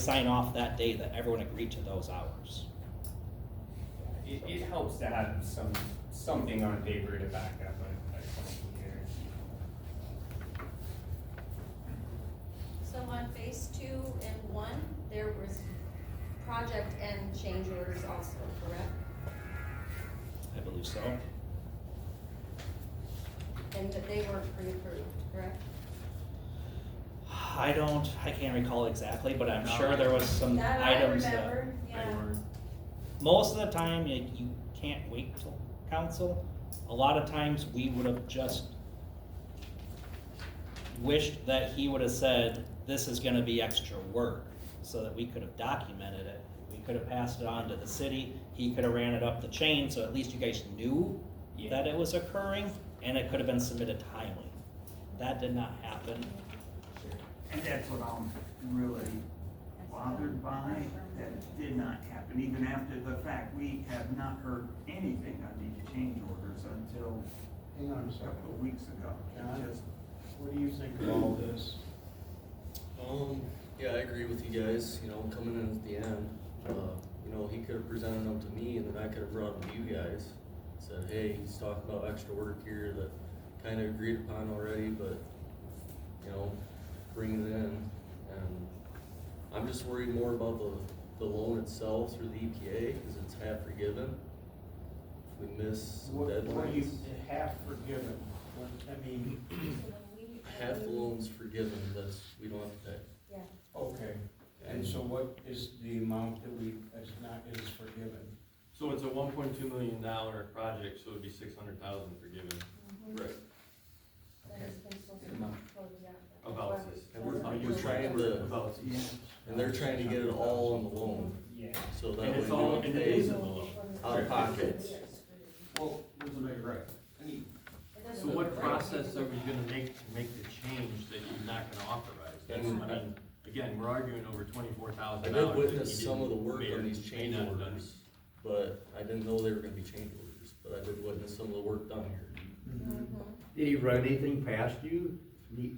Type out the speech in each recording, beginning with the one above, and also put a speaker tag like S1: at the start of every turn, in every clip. S1: sign off that day that everyone agreed to those hours.
S2: It, it helps to have some, something on paper to back up a, a claim here.
S3: So on phase two and one, there was project and change orders also, correct?
S1: I believe so.
S3: And that they were pre-approved, correct?
S1: I don't, I can't recall exactly, but I'm
S2: No.
S1: sure there was some
S3: That I
S1: items that.
S3: remember,
S2: They
S3: yeah.
S2: were-
S1: Most of the time, you, you can't wait till council. A lot of times, we would have just wished that he would have said, this is gonna be extra work, so that we could have documented it. We could have passed it on to the city, he could have ran it up the chain, so at least you guys knew
S2: Yeah,
S1: that it was occurring, and it could have been submitted timely. That did not happen.
S4: And that's what I'm really bothered by, that did not happen, even after the fact, we have not heard anything on these change orders until
S5: Hang on a
S4: a couple
S5: second,
S4: of weeks ago. It just-
S5: what do you think of all this?
S6: Um, yeah, I agree with you guys, you know, coming in at the end, uh, you know, he could have presented them to me and then I could have brought them to you guys. Said, hey, he's talking about extra work here that kinda agreed upon already, but, you know, bring it in. And I'm just worried more about the, the loan itself through the EPA, cause it's half forgiven. If we miss some
S5: What, what do you
S6: deadlines,
S5: have forgiven? What, I mean,
S6: half the
S3: um,
S6: loan's forgiven, that's, we don't have to pay.
S3: Yeah,
S5: okay, and so what is the amount that we, that's not, is forgiven?
S7: So it's a one point two million dollar project, so it'd be six hundred thousand forgiven. Right.
S3: that has been supposed to be closed out.
S7: About this.
S6: And we're-
S3: About
S6: we're
S3: this.
S6: trying to-
S7: About
S4: Yeah.
S6: And they're trying to get it all on the loan,
S2: yeah.
S6: so that
S7: And
S6: way
S7: it's
S6: we
S7: all
S6: don't
S7: in the
S6: pay.
S7: days of the loan.
S6: Out of pockets.
S5: Well, wasn't I right?
S3: It doesn't
S7: So what
S3: look right.
S7: process are we gonna make to make the change that you're not gonna authorize? That's, I mean, again, we're arguing over twenty-four
S6: I
S7: thousand dollars.
S6: did witness some of the work on these change orders, but I didn't know they were gonna be change orders, but I did witness some of the work done here.
S3: Mhm.
S8: Did he run anything past you? He-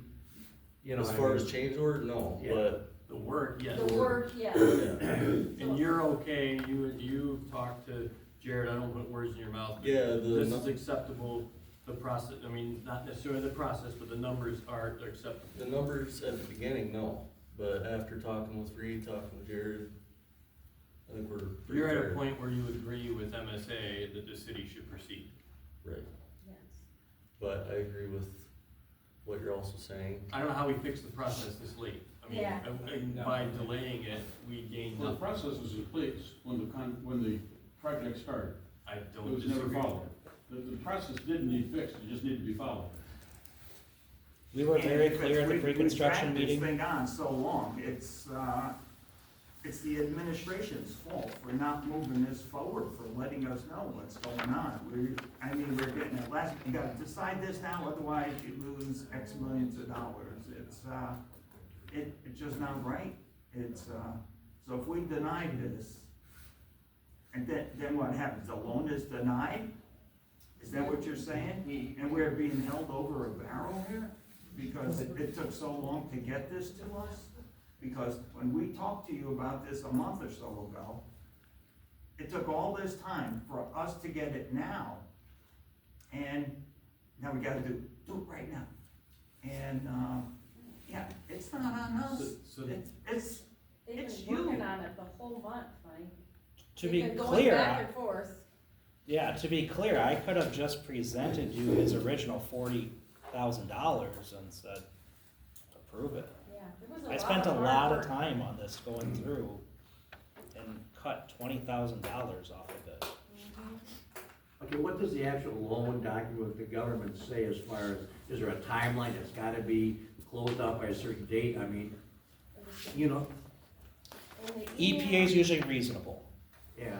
S8: You know,
S6: As
S8: I
S6: far
S8: mean,
S6: as change order, no,
S8: Yeah.
S6: but,
S7: The work, yes.
S3: The work, yeah.
S6: yeah,
S7: And you're okay, you, you talked to Jared, I don't put words in your mouth. but
S6: Yeah, the
S7: This
S6: nu-
S7: is acceptable, the process, I mean, not necessarily the process, but the numbers are acceptable.
S6: the numbers at the beginning, no, but after talking with Reed, talking with Jared, I think we're. pretty
S7: You're at
S6: fair.
S7: a point where you agree with MSA that the city should proceed.
S6: Right,
S3: Yes.
S6: but I agree with what you're also saying,
S7: I don't know how we fix the process this late. I mean,
S3: Yeah.
S7: I- I- by delaying it, we gain
S9: Well, the
S7: nothing.
S9: process was in place when the con, when the project started.
S7: I
S9: It
S7: don't
S9: was never
S7: disagree.
S9: followed. The, the process didn't need fixed, it just needed to be followed.
S1: We were very
S4: And
S1: clear at the
S4: we- we
S1: pre-construction
S4: dragged this
S1: meeting.
S4: Thing on so long, it's, uh, it's the administration's fault for not moving this forward, for letting us know what's going on. We, I mean, we're getting it last, you gotta decide this now, otherwise you lose X millions of dollars. It's, uh, it, it's just not right. It's, uh, so if we deny this, and then, then what happens? The loan is denied? Is that what you're saying? And we're being held over a barrel here? Because it, it took so long to get this to us? Because when we talked to you about this a month or so ago, it took all this time for us to get it now. And now we gotta do, do it right now. And, um, yeah, it's not on us.
S7: So- so-
S4: It's, it's,
S3: They've
S4: It's
S3: been working
S4: you.
S3: on it the whole month, Mike.
S1: To
S3: They've
S1: be
S3: been going
S1: clear,
S3: Back
S1: I-
S3: and forth.
S1: yeah, to be clear, I could have just presented you his original forty thousand dollars and said, approve it.
S3: Yeah, there was a lot
S1: I
S3: of
S1: spent a
S3: hard
S1: lot of
S3: work.
S1: time on this going through and cut twenty thousand dollars off of it.
S8: Okay, what does the actual loan document with the government say as far as, is there a timeline? It's gotta be closed out by a certain date, I mean,
S3: It was
S8: you know,
S3: only
S1: EPA E is usually reasonable.
S8: yeah.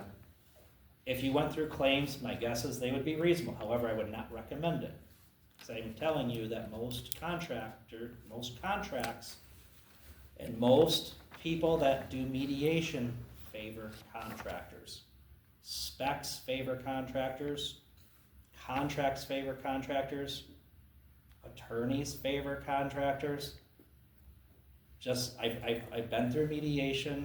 S1: If you went through claims, my guess is they would be reasonable, however, I would not recommend it. Cause I'm telling you that most contractor, most contracts, and most people that do mediation favor contractors. Specs favor contractors, contracts favor contractors, attorneys favor contractors. just, I've, I've, I've been through mediation,